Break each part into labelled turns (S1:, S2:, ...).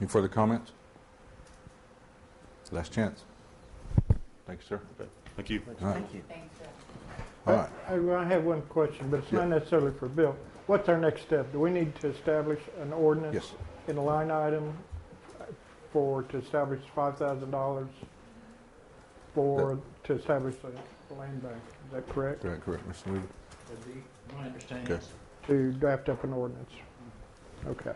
S1: Any further comments? Last chance. Thank you, sir.
S2: Thank you.
S1: All right,
S3: Thank you.
S1: all right.
S4: I well, I have one question, but it's not necessarily for Bill. What's our next step? Do we need to establish an ordinance?
S1: Yes,
S4: In a line item for, to establish $5,000 for, to establish a land bank? Is that correct?
S1: correct, correct, Mr. Weaver.
S5: My understanding
S1: Okay.
S5: is
S4: To draft up an ordinance? Okay,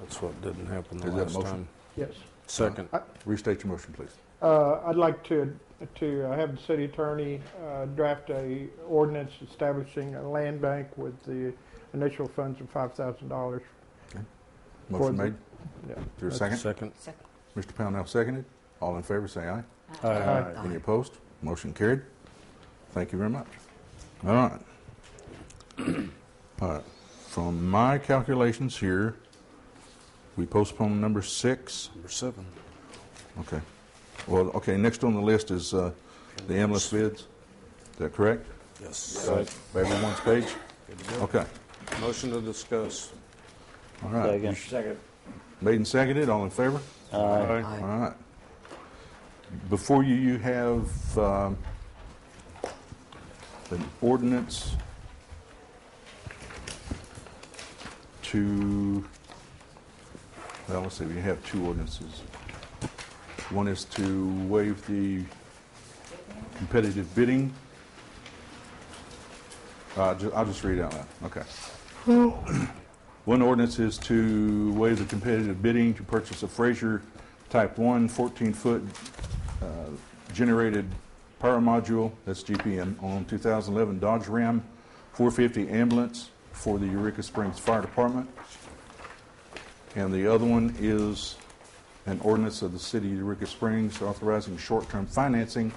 S6: That's what didn't happen the
S1: Is that a
S6: last
S1: motion?
S6: time.
S4: yes.
S6: Second.
S1: Restate your motion, please.
S4: Uh, I'd like to, to uh, have the city attorney uh, draft a ordinance establishing a land bank with the initial funds of $5,000. For
S1: Motion
S4: the-
S1: made.
S4: Yeah.
S1: Is there a second?
S6: Second.
S3: Second.
S1: Mr. Pownell seconded. All in favor, say aye.
S6: Aye.
S1: Any opposed? Motion carried. Thank you very much. All right. All right. From my calculations here, we postpone number six.
S6: Number seven.
S1: Okay. Well, okay, next on the list is uh, the endless bids. Is that correct?
S6: Yes.
S1: Everyone's page?
S6: Good to go.
S1: Okay.
S6: Motion to discuss.
S1: All right.
S5: Second.
S1: Made and seconded. All in favor?
S3: Aye.
S1: All right. Before you, you have um, an ordinance to, well, let's see, we have two ordinances. One is to waive the competitive bidding. Uh, ju- I'll just read it out loud, okay. One ordinance is to waive the competitive bidding to purchase a Frazier Type 1 14-foot uh, generated power module, that's GPM, on 2011 Dodge Ram 450 ambulance for the Eureka Springs Fire Department. And the other one is an ordinance of the city of Eureka Springs authorizing short-term financing